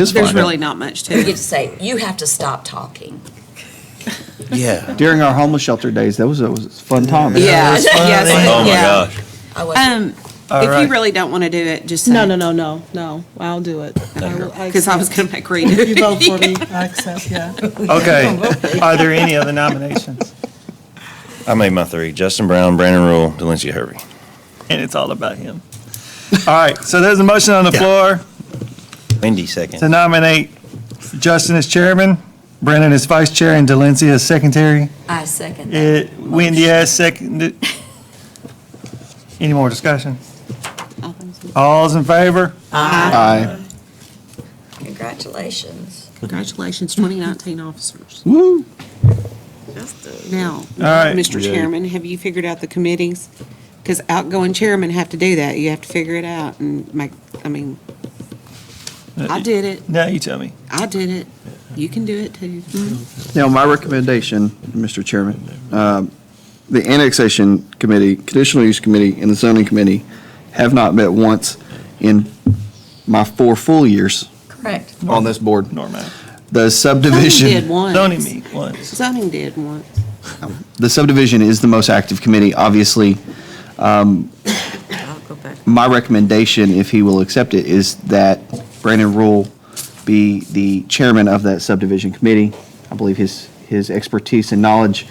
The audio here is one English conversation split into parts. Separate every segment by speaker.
Speaker 1: It's
Speaker 2: There's
Speaker 1: fine.
Speaker 2: really not much to
Speaker 3: You get
Speaker 2: it.
Speaker 3: to say, you have to stop talking.
Speaker 4: Yeah.
Speaker 1: During our homeless shelter days, that was a was a fun time.
Speaker 2: Yeah, yes,
Speaker 4: Oh my
Speaker 2: yeah.
Speaker 4: gosh.
Speaker 3: I wasn't,
Speaker 2: Um,
Speaker 4: All
Speaker 2: if
Speaker 4: right.
Speaker 2: you really don't want to do it, just say.
Speaker 5: No, no, no, Oh, no, no, I'll do it.
Speaker 2: Because I was going to make Rita.
Speaker 5: You vote for me, I accept, yeah.
Speaker 6: Okay. Are there any other nominations?
Speaker 4: I made my three. Justin Brown, Brandon Rule, Delancey Hervey.
Speaker 6: And it's all about him. All right, so there's a motion on the floor
Speaker 4: Wendy
Speaker 6: to
Speaker 4: second.
Speaker 6: nominate Justin as chairman, Brennan as vice chair, and Delancey as secretary.
Speaker 3: I second that.
Speaker 6: Uh, Wendy as second. Any more discussion? All's in favor?
Speaker 1: Aye.
Speaker 3: Congratulations.
Speaker 2: Congratulations, 2019 officers.
Speaker 1: Woo.
Speaker 2: Now,
Speaker 6: right.
Speaker 2: Mr. Chairman, have you figured out the committees? Because outgoing chairmen have to do that. You have to figure it out and make, I mean,
Speaker 6: Uh,
Speaker 2: I did it.
Speaker 6: Now you tell me.
Speaker 2: I did it. You can do it too.
Speaker 1: Now, my recommendation, Mr. Chairman, um, the annexation committee, conditional use committee, and the zoning committee have not met once in my four full years
Speaker 3: Correct.
Speaker 1: on this board.
Speaker 6: Norman.
Speaker 1: The
Speaker 2: Zoning did
Speaker 1: subdivision,
Speaker 2: once.
Speaker 6: Zoning me once.
Speaker 2: Zoning did once.
Speaker 1: the subdivision is the most active committee, obviously. Um,
Speaker 3: I'll go back.
Speaker 1: My recommendation, if he will accept it, is that Brandon Rule be the chairman of that subdivision committee. I believe his, his expertise and knowledge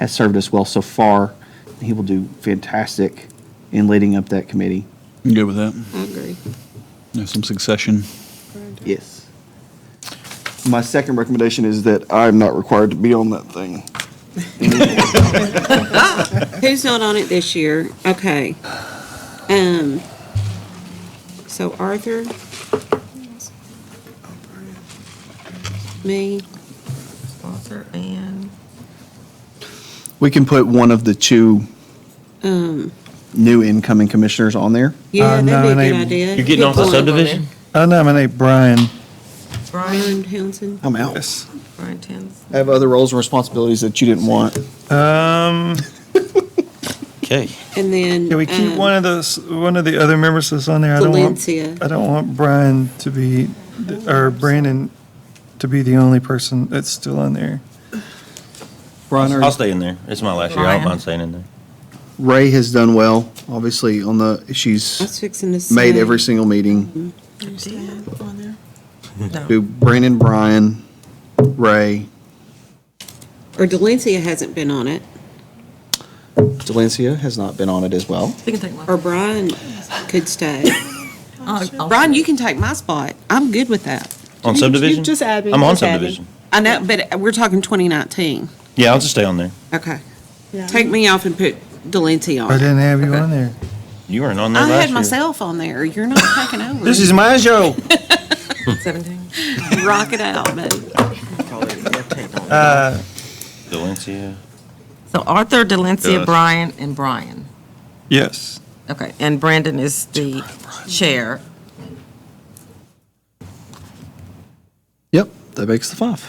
Speaker 1: has served us well so far. He will do fantastic in leading up that committee.
Speaker 7: I'm good with that.
Speaker 2: I agree.
Speaker 7: There's some succession.
Speaker 1: Yes. My second recommendation is that I'm not required to be on that thing.
Speaker 2: Who's not on it this year? Okay. Um, so Arthur? Me?
Speaker 3: Arthur and
Speaker 1: We can put one of the two new incoming commissioners on there.
Speaker 2: Yeah,
Speaker 6: Uh,
Speaker 2: that'd be a good
Speaker 6: nominate-
Speaker 2: idea.
Speaker 8: You're getting off the subdivision?
Speaker 6: I nominate Brian.
Speaker 3: Brian,
Speaker 2: Brian Townsend?
Speaker 1: I'm out.
Speaker 3: Brian Townsend.
Speaker 1: I have other roles and responsibilities that you didn't want.
Speaker 6: Um,
Speaker 8: Okay.
Speaker 2: And then.
Speaker 6: can we keep
Speaker 2: um,
Speaker 6: one of those, one of the other members that's on there? I don't want,
Speaker 2: Valencia.
Speaker 6: I don't want Brian to be, or Brandon to be the only person that's still on there.
Speaker 1: Bronner.
Speaker 4: I'll stay in there. It's my last year. I don't
Speaker 3: Ryan.
Speaker 4: mind staying in there.
Speaker 1: Ray has done well, obviously, on the,
Speaker 2: I was
Speaker 1: she's
Speaker 2: fixing to say.
Speaker 1: made every single meeting.
Speaker 3: on there?
Speaker 1: Do
Speaker 3: No,
Speaker 1: Brandon, Brian, Ray,
Speaker 2: Or Delencia hasn't been on it,
Speaker 1: Delancia has not been on it as well.
Speaker 3: we can take one.
Speaker 2: or Brian could stay.
Speaker 3: I'll- I'll-
Speaker 2: Brian, you can take my spot. I'm good with that.
Speaker 4: On subdivision?
Speaker 5: just add me,
Speaker 4: I'm on
Speaker 5: just add me.
Speaker 4: subdivision.
Speaker 2: I know, but we're talking 2019.
Speaker 4: Yeah, I'll just stay on there.
Speaker 2: Okay.
Speaker 5: Yeah.
Speaker 2: Take me off and put Delencia
Speaker 6: I
Speaker 2: on.
Speaker 6: didn't have you on there.
Speaker 4: You weren't on there
Speaker 2: I
Speaker 4: last year.
Speaker 2: had myself on there. You're not taking over.
Speaker 4: my show.
Speaker 3: Seventeen.
Speaker 2: Rock it out, man.
Speaker 6: Uh,
Speaker 4: Delancia.
Speaker 9: So Arthur, Delancia,
Speaker 8: Yes.
Speaker 9: Brian, and Brian.
Speaker 6: yes.
Speaker 9: Okay, and Brandon is the chair.
Speaker 1: Yep, that makes the five.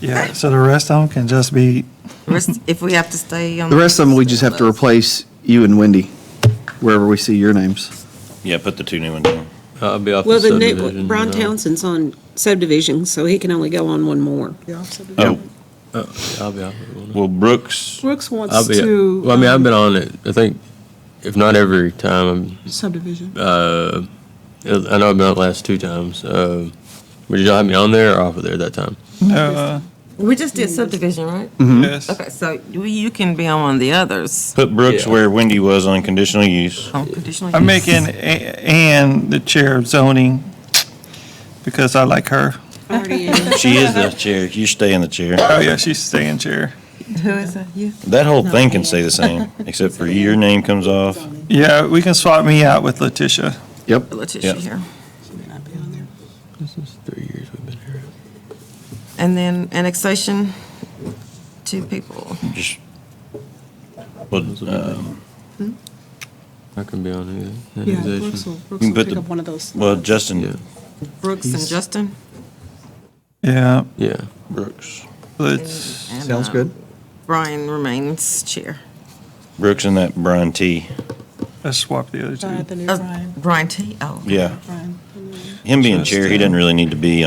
Speaker 6: Yeah, so the rest of them can just be,
Speaker 9: The rest- If we have to stay on.
Speaker 1: The rest of them, we just have to replace you and Wendy, wherever we see your names.
Speaker 4: Yeah, put the two new ones down.
Speaker 8: I'll Uh, be off
Speaker 2: Well,
Speaker 8: the
Speaker 2: the
Speaker 8: subdivision.
Speaker 2: new, Brian
Speaker 8: uh,
Speaker 2: Townsend's on subdivision, so he can only go on one more.
Speaker 4: Oh,
Speaker 8: I'll be off it. won't I?
Speaker 4: well, Brooks,
Speaker 5: Brooks
Speaker 8: I'll
Speaker 5: wants
Speaker 8: be,
Speaker 5: to.
Speaker 8: well, I mean, I've
Speaker 5: um,
Speaker 8: been on it, I think, if not every time,
Speaker 5: Subdivision.
Speaker 8: uh, I know I've been on it last two times. Uh, Would you have me on there or off of there that time?
Speaker 6: no,
Speaker 9: We just did subdivision, right?
Speaker 1: Mm.
Speaker 6: uh, yes.
Speaker 9: Okay, so you you can be on one of the others.
Speaker 4: put Brooks
Speaker 8: Yeah.
Speaker 4: where Wendy was on conditional use.
Speaker 9: on conditional
Speaker 6: I'm
Speaker 9: use.
Speaker 6: making A- Ann the chair of zoning because I like her.
Speaker 2: Already in.
Speaker 4: She is the chair. You stay in the chair.
Speaker 6: Oh, yeah, she's staying chair.
Speaker 9: Who is that? You?
Speaker 4: That whole thing can stay the same, except for your name comes off.
Speaker 6: Yeah, we can swap me out with Letitia.
Speaker 1: Yep.
Speaker 9: Letitia
Speaker 4: Yeah.
Speaker 9: here.
Speaker 8: This is three years we've been here.
Speaker 9: And then annexation, two people.
Speaker 4: Just, well, um,
Speaker 8: I can be on it.
Speaker 5: Yeah, Brooks will, Brooks
Speaker 4: You can
Speaker 5: will
Speaker 4: put
Speaker 5: pick
Speaker 4: the-
Speaker 5: up one of those.
Speaker 4: well,
Speaker 5: slots.
Speaker 8: Yeah,
Speaker 4: Justin,
Speaker 9: Brooks and Justin.
Speaker 6: Yeah,
Speaker 8: yeah.
Speaker 4: Brooks,
Speaker 6: let's,
Speaker 9: and,
Speaker 1: Sounds
Speaker 9: uh,
Speaker 1: good.
Speaker 9: Brian remains chair.
Speaker 4: Brooks and that Brian T.
Speaker 6: let's swap the other
Speaker 5: All right,
Speaker 6: two.
Speaker 5: the new
Speaker 9: Uh,
Speaker 5: Brian,
Speaker 9: Brian T. Oh.
Speaker 4: Yeah,
Speaker 5: Brian.
Speaker 4: him being chair, he doesn't really need to be